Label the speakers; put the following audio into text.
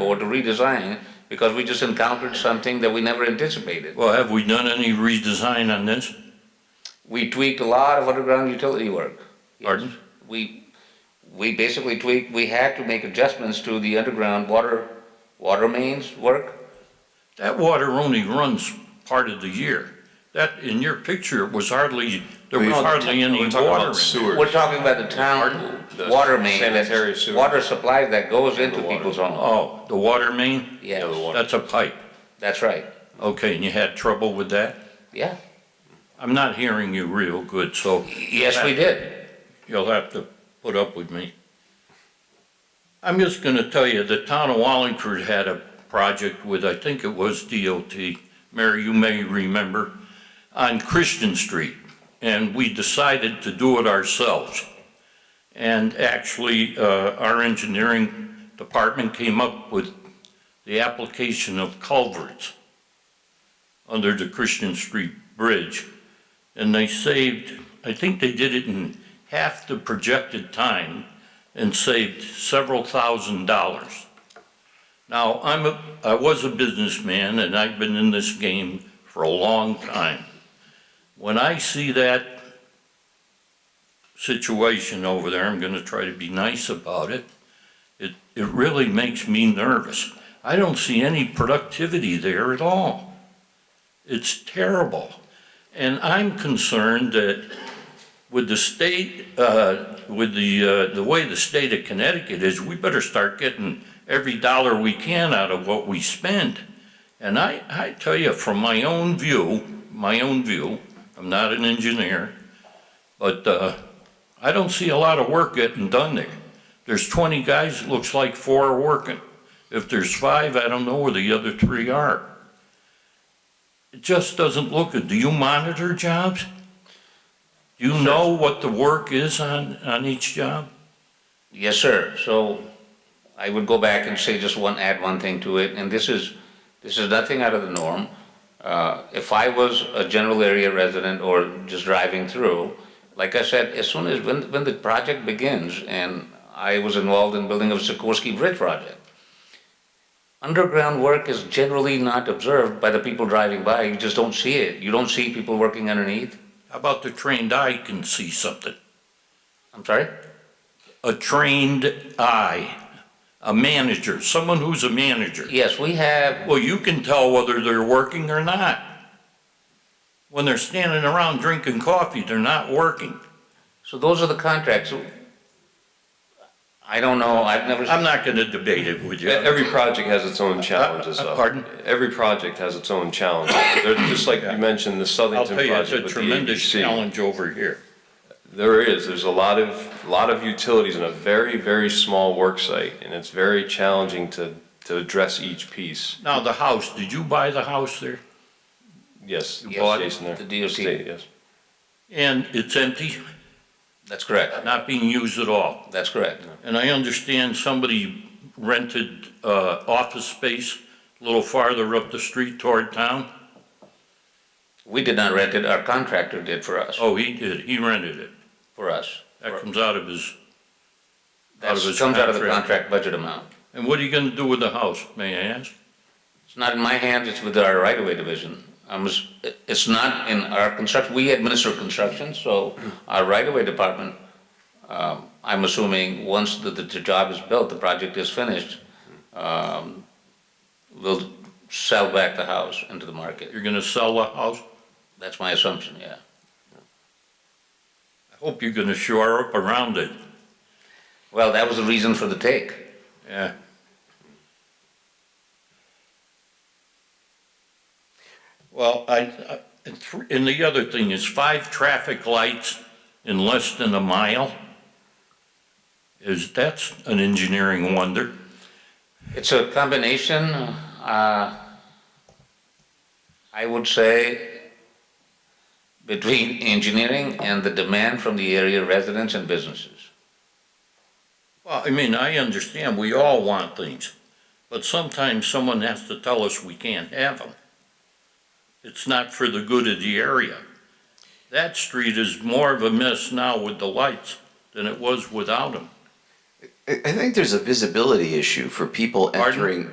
Speaker 1: or to redesign it because we just encountered something that we never anticipated.
Speaker 2: Well, have we done any redesign on this?
Speaker 1: We tweaked a lot of underground utility work.
Speaker 2: Pardon?
Speaker 1: We, we basically tweaked, we had to make adjustments to the underground water, water mains work.
Speaker 2: That water only runs part of the year. That, in your picture, was hardly, there was
Speaker 3: No,
Speaker 2: hardly any
Speaker 3: we're
Speaker 2: water
Speaker 3: talking about
Speaker 2: in it.
Speaker 3: sewer.
Speaker 1: We're talking about the town
Speaker 3: The
Speaker 1: water main,
Speaker 3: sanitary
Speaker 1: that's-
Speaker 3: sewer.
Speaker 1: water supply that goes into
Speaker 3: water.
Speaker 1: people's homes.
Speaker 2: Oh, the water main?
Speaker 3: Yeah, the
Speaker 1: Yes,
Speaker 3: water.
Speaker 2: That's a pipe.
Speaker 1: that's right,
Speaker 2: Okay, and you had trouble with that?
Speaker 1: yeah.
Speaker 2: I'm not hearing you real good, so
Speaker 1: Yes, we did.
Speaker 2: you'll have to put up with me. I'm just gonna tell you, the town of Wallingford had a project with, I think it was DOT, Mary, you may remember, on Christian Street, and we decided to do it ourselves. And actually, uh, our engineering department came up with the application of culverts under the Christian Street Bridge, and they saved, I think they did it in half the projected time and saved several thousand dollars. Now, I'm a, I was a businessman and I've been in this game for a long time. When I see that situation over there, I'm gonna try to be nice about it, it, it really makes me nervous. I don't see any productivity there at all. It's terrible. And I'm concerned that with the state, uh, with the, uh, the way the state of Connecticut is, we better start getting every dollar we can out of what we spend. And I, I tell you, from my own view, my own view, I'm not an engineer, but, uh, I don't see a lot of work getting done there. There's twenty guys, it looks like four are working. If there's five, I don't know where the other three are. It just doesn't look good. Do you monitor jobs? Do you know what the work is on, on each job?
Speaker 1: Yes, sir. So I would go back and say just one, add one thing to it, and this is, this is nothing out of the norm. Uh, If I was a general area resident or just driving through, like I said, as soon as, when, when the project begins, and I was involved in building of Sikorsky Bridge project, underground work is generally not observed by the people driving by. You just don't see it. You don't see people working underneath.
Speaker 2: How about the trained eye can see something?
Speaker 1: I'm sorry?
Speaker 2: A trained eye, a manager, someone who's a manager.
Speaker 1: Yes, we have,
Speaker 2: Well, you can tell whether they're working or not. When they're standing around drinking coffee, they're not working.
Speaker 1: so those are the contracts. I don't know, I've never.
Speaker 2: I'm not gonna debate it with
Speaker 3: E-
Speaker 2: you.
Speaker 3: Every project has its own challenges,
Speaker 2: uh,
Speaker 3: though.
Speaker 2: pardon?
Speaker 3: Every project has its own challenges. They're just like you mentioned, the
Speaker 2: I'll
Speaker 3: Southington
Speaker 2: tell you, it's
Speaker 3: project
Speaker 2: a
Speaker 3: with the
Speaker 2: tremendous
Speaker 3: ABC.
Speaker 2: challenge over here.
Speaker 3: There is, there's a lot of, lot of utilities in a very, very small work site, and it's very challenging to, to address each piece.
Speaker 2: Now, the house, did you buy the house there?
Speaker 3: Yes,
Speaker 1: You bought
Speaker 3: Jason there.
Speaker 1: the DOT.
Speaker 3: State, Yes.
Speaker 2: And it's empty,
Speaker 1: That's correct.
Speaker 2: not being used at all.
Speaker 1: That's correct.
Speaker 2: And I understand somebody rented uh, office space a little farther up the street toward town.
Speaker 1: We did not rent it, our contractor did for us,
Speaker 2: Oh, he did, he rented it.
Speaker 1: for us.
Speaker 2: That comes out of his,
Speaker 1: That
Speaker 2: Out of his
Speaker 1: comes out of the
Speaker 2: contract.
Speaker 1: contract budget amount.
Speaker 2: and what are you gonna do with the house, may I ask?
Speaker 1: It's not in my hands, it's with our right-of-way division. I'm, s- it's not in our construction, we administer construction, so our right-of-way department, um, I'm assuming, once the, the the job is built, the project is finished, um, we'll sell back the house into the market.
Speaker 2: You're gonna sell the house?
Speaker 1: That's my assumption, yeah.
Speaker 2: I hope you're gonna shore up around it,
Speaker 1: Well, that was the reason for the take.
Speaker 2: yeah. Well, I, I- and thr- and the other thing is five traffic lights in less than a mile. Is, that's an engineering wonder.
Speaker 1: It's a combination, uh, I would say, between engineering and the demand from the area residents and businesses.
Speaker 2: Well, I mean, I understand, we all want things, but sometimes someone has to tell us we can't have them. It's not for the good of the area. That street is more of a mess now with the lights than it was without them.
Speaker 4: I I think there's a visibility issue for people
Speaker 3: Pardon?
Speaker 4: entering.